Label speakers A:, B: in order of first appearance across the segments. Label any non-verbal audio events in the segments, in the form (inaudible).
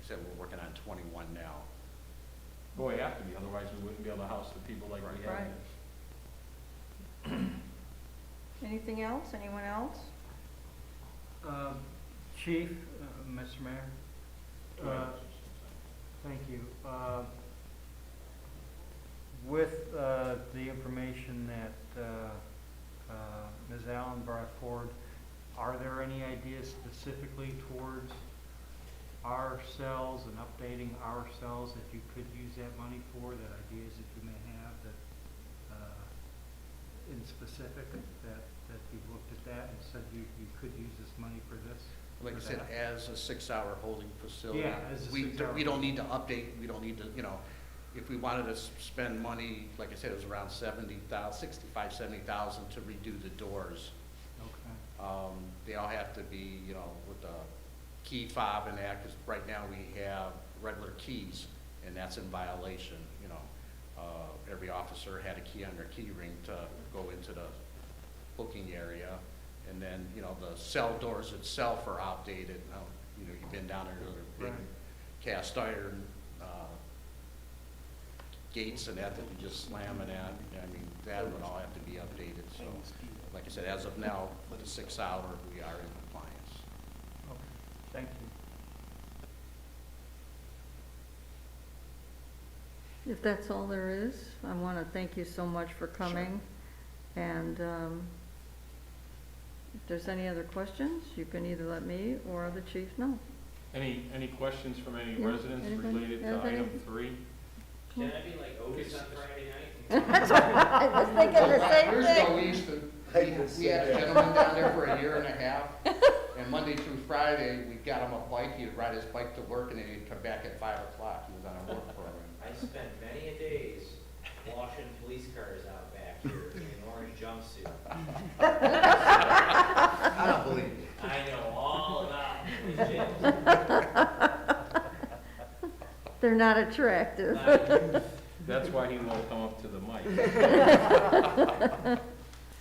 A: Except we're working on twenty-one now.
B: Well, we have to be, otherwise we wouldn't be able to house the people like we have.
C: Right. Anything else, anyone else?
D: Um, Chief, uh, Mr. Mayor, uh, thank you. Uh, With uh, the information that uh, uh, Ms. Allen brought forward, are there any ideas specifically towards our cells and updating our cells that you could use that money for, that ideas that you may have that, uh, in specific, that, that you've looked at that and said you, you could use this money for this?
A: Like I
D: For
A: said,
D: that?
A: as a six-hour holding facility.
D: Yeah, as a
A: we-
D: six-hour
A: We don't need to update, we don't need to, you know, if we wanted to s- spend money, like I said, it was around seventy thou, sixty-five, seventy thousand to redo the doors.
D: Okay.
A: Um, they all have to be, you know, with a key fob and that, because right now we have regular keys, and that's in violation, you know. Uh, every officer had a key on their key ring to go into the booking area. And then, you know, the cell doors itself are outdated. Now, you know, you've been down there, they're big
D: Right.
A: cast iron, uh, gates and that that you just slam and that. I mean, that would all have to be updated, so. Like I said, as of now, with the six hour, we are in compliance.
D: Okay, thank you.
C: If that's all there is, I want to thank you so much for coming. And um, if there's any other questions, you can either let me or the chief know.
B: Any, any questions from any
C: Yeah,
B: residents
C: anybody-
B: related to
C: anybody?
B: item three?
E: Can I be like Otis on Friday night?
C: That's what (laughs) I was thinking the same
A: Years ago, we
C: thing.
A: used to, we, we had a gentleman down there for a year and a half, and Monday through Friday, we got him a bike, he'd ride his bike to work, and then he'd come back at five o'clock, he was on a work program.
E: I spent many a days washing police cars out back here in an orange jumpsuit.
A: I don't believe you.
E: I know all about police jails.
C: They're not attractive.
E: Like,
B: That's why he won't come up to the mic.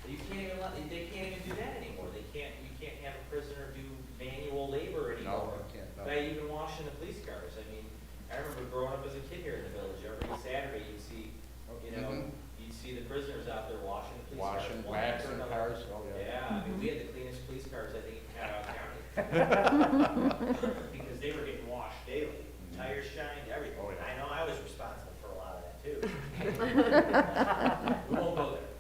E: You can't even let, they can't even do that anymore. They can't, you can't have a prisoner do manual
A: No,
E: labor anymore.
A: I can't, no.
E: Not even washing the police cars. I mean, I remember growing up as a kid here in the village, every Saturday you'd see, you know,
A: Mhm.
E: you'd see the prisoners out there washing the police cars.
A: Washing,
E: one after
A: waxing
E: another.
A: cars, oh yeah.
E: Yeah, I mean, we had the cleanest police cars, I think, in Catawba County. Because they were getting washed daily, tires shined, everything.
A: Oh, yeah.
E: I know I was responsible for a lot of that too.
F: (laughs)
E: We won't go there.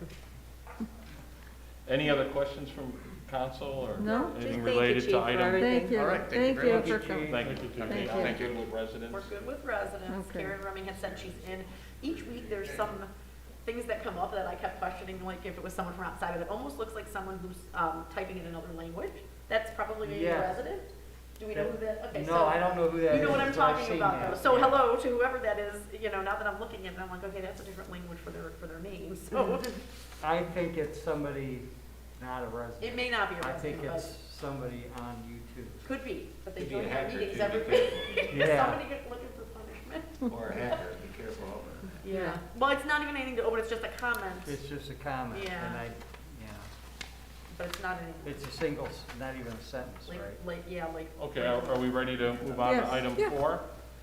B: Any other questions from council or
C: No.
G: Just
B: anything
G: thank you,
B: related
G: Chief,
B: to
G: for
B: item?
G: everything.
C: Thank you.
A: All right, thank you very much.
C: for coming.
B: Thank you.
C: Thank
B: Okay,
C: you.
B: Thank you with residents.
G: We're good with residents.
C: Okay.
G: Karen Rumming had said she's in. Each week, there's some things that come up that I kept questioning, like if it was someone from outside, but it almost looks like someone who's um, typing in another language. That's probably a
D: Yeah.
G: resident? Do we know who that, okay, so.
D: No, I don't know who that is.
G: You know what I'm
D: but I've
G: talking
D: seen
G: about,
D: that.
G: though. So hello to whoever that is, you know, now that I'm looking at it, I'm like, okay, that's a different language for their, for their name, (laughs) so.
D: (laughs) I think it's somebody not a resident.
G: It may not be a
D: I think
G: resident,
D: it's
G: but
D: somebody on YouTube.
G: could be, but they
F: Could be a
G: don't have
F: hacker,
G: meetings
F: too.
G: every week.
D: Yeah,
G: (laughs) Somebody get looking for punishment.
F: Or a hacker, be careful of her.
G: Yeah. Well, it's not even anything to open, it's just a comment,
D: it's just a comment, and
G: Yeah.
D: I, yeah,
G: but it's not anything.
D: it's a single, s- not even a sentence,
G: Like,
D: right?
G: like, yeah, like.
B: Okay, are are we ready to move on
C: Yes.
B: to item
C: Yeah.
B: four?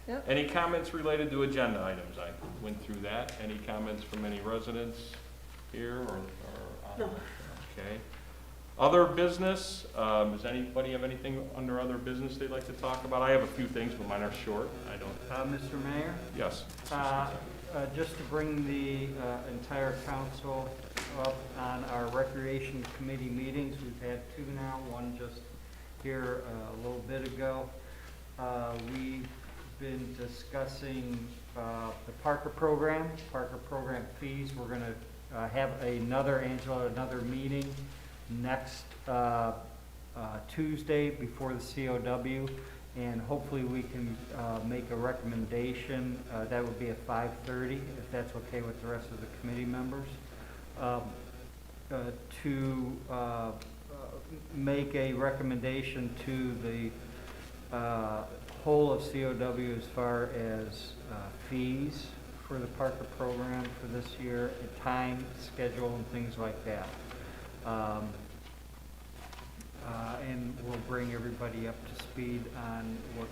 C: Yep.
B: Any comments related to agenda items? I went through that. Any comments from any residents here or? or on-
G: No.
B: Okay. Other business, um, does anybody have anything under other business they'd like to talk about? I have a few things, but mine are short. I don't,
D: Uh, Mr. Mayor?
B: yes.
D: Uh, uh, Just to bring the uh, entire council up on our recreation committee meetings, we've had two now, one just here uh, a little bit ago. Uh, We've been discussing uh, the Parker program, Parker program fees. We're going to have another, Angela, another meeting next uh, uh, Tuesday before the COW, and hopefully we can uh, make a recommendation. Uh, That would be at 5:30, if that's okay with the rest of the committee members, um, uh, to uh, uh, make a recommendation to the uh, whole of COW as far as uh, fees for the Parker program for this year, and time, schedule, and things like that. Um, uh, and we'll bring everybody up to speed on what